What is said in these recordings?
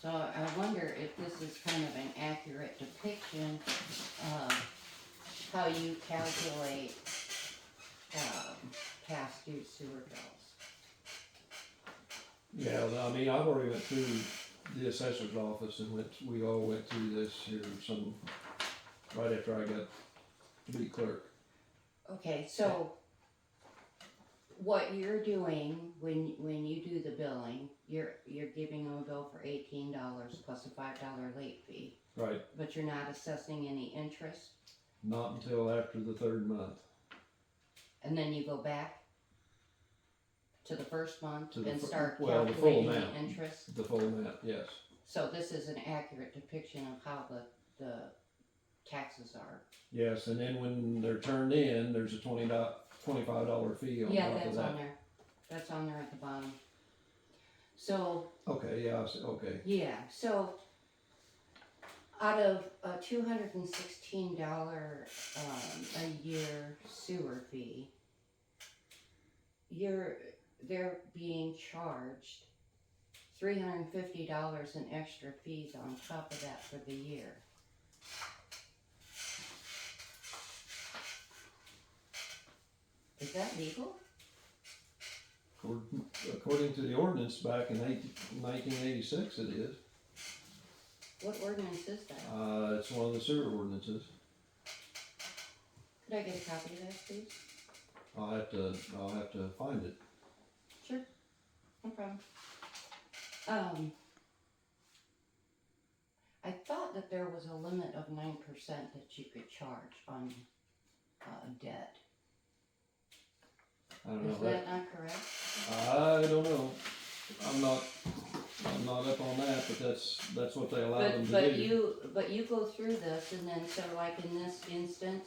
So I wonder if this is kind of an accurate depiction of how you calculate, um, past due sewer bills. Yeah, I mean, I've already went through the assessor's office and went, we all went through this here some, right after I got to be clerk. Okay, so what you're doing when, when you do the billing, you're, you're giving them a bill for eighteen dollars plus a five dollar late fee, Right, but you're not assessing any interest, not until after the third month, and then you go back to the first month To the and fir- start well, the full calculating the amount. interest? the full amount, yes. So this is an accurate depiction of how the, the taxes are. Yes, and then when they're turned in, there's a twenty twenty-five dollar fee on Yeah, top of that's on that. there, that's on there at the bottom. So, Okay, yeah, I see, okay, yeah, so out of a two hundred and sixteen dollar, um, a year sewer fee, you're, they're being charged three hundred and fifty dollars in extra fees on top of that for the year. Is that legal? According- according to the ordinance back in nineteen eighty-six it is, What ordinance is that? uh, it's one of the sewer ordinances. Could I get a copy of that, please? I'll have to, I'll have to find it. Sure. No problem. Um, I thought that there was a limit of nine percent that you could charge on, uh, debt. I don't know. Is that- that not correct? Uh, I don't know. I'm not, I'm not up on that, but that's, that's what they allow them But, to but do. you, but you go through this and then, so like in this instance,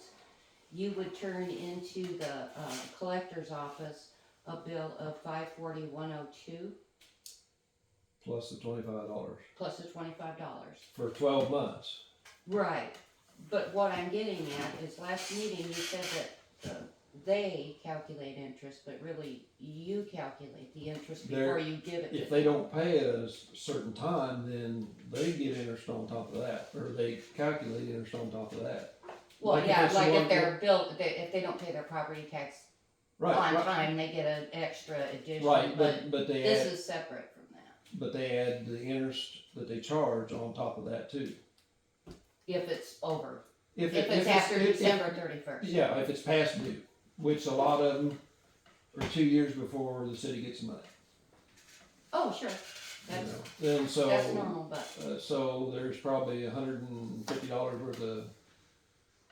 you would turn into the, uh, collector's office a bill of five forty, one oh two, Plus the twenty-five dollars plus the twenty-five dollars. for twelve months. Right, but what I'm getting at is last meeting you said that uh, they calculate interest, but really you calculate the interest They're- before you give it to them. If they don't pay at a s- certain time, then they get interest on top of that, or they calculate interest on top of that. Well, like if yeah, it's the like one- if they're built, they- if they don't pay their property tax Right, on right, time, they get an extra addition, right, but but, but they this add, is separate from that. but they add the interest that they charge on top of that too. If it's over, if it- it's after if- if- December thirty-first, Yeah, if it's past due, which a lot of them are two years before the city gets the money. oh, sure, you that's, know. And so. that's normal, but, Uh, so there's probably a hundred and fifty dollars worth of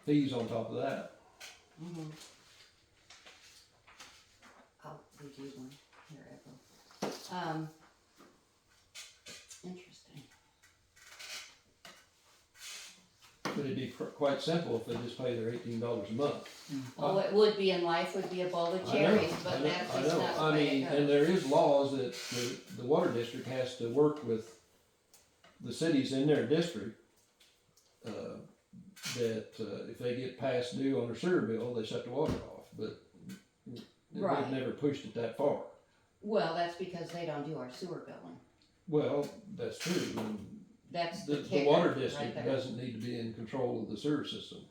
fees on top of that. mhm. I'll review Oh, one here, April. Um, interesting. But it'd be pr- quite simple if they just pay their eighteen dollars a month. Oh, it would be in life would be a bowl of Hmm. I know, cherries, I but know, that's I just know. not the I way mean, it goes. and there is laws that the, the water district has to work with the cities in their district. Uh, that, uh, if they get past due on their sewer bill, they shut the water off, but Right. they've never pushed it that far. Well, that's because they don't do our sewer billing. Well, that's true, and That's The, the the kicker water right district there. doesn't need to be in control of the sewer system.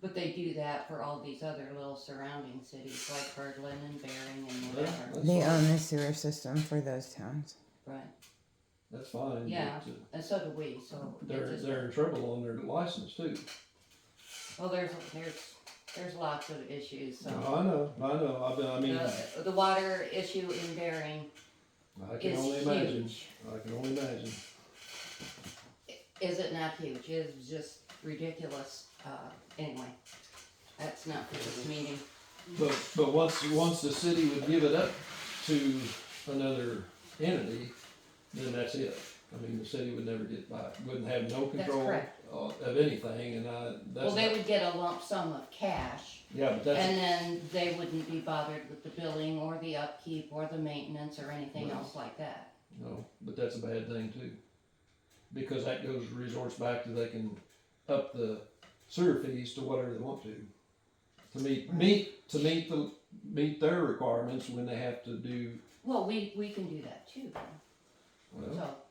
But they do that for all these other little surrounding cities like Berlin and Bering and Yeah, whatever, that's They fine. own the sewer system for those towns. right? That's fine. Yeah. but, uh, And so do we, so. it They're, just- they're in trouble on their license too. Well, there's, there's, there's lots of issues, I so. know, I know, I, be- I mean, The, the water issue in Bering I can is only imagine, huge. I can only imagine. Is it not huge? It is just ridiculous, uh, anyway. That's not for this meeting. But, but once, once the city would give it up to another entity, then that's it. I mean, the city would never get by, wouldn't have no control correct. of of anything and I, Well, that's, they not- would get a lump sum of cash, yeah, but that's, and then they wouldn't be bothered with the billing or the upkeep or the maintenance or anything Right. else like that. No, but that's a bad thing too. Because that goes resorts back to they can up the sewer fees to whatever they want to. To meet, meet, to meet the, meet their requirements when they have to do, Well, we, we can do that too, well, so,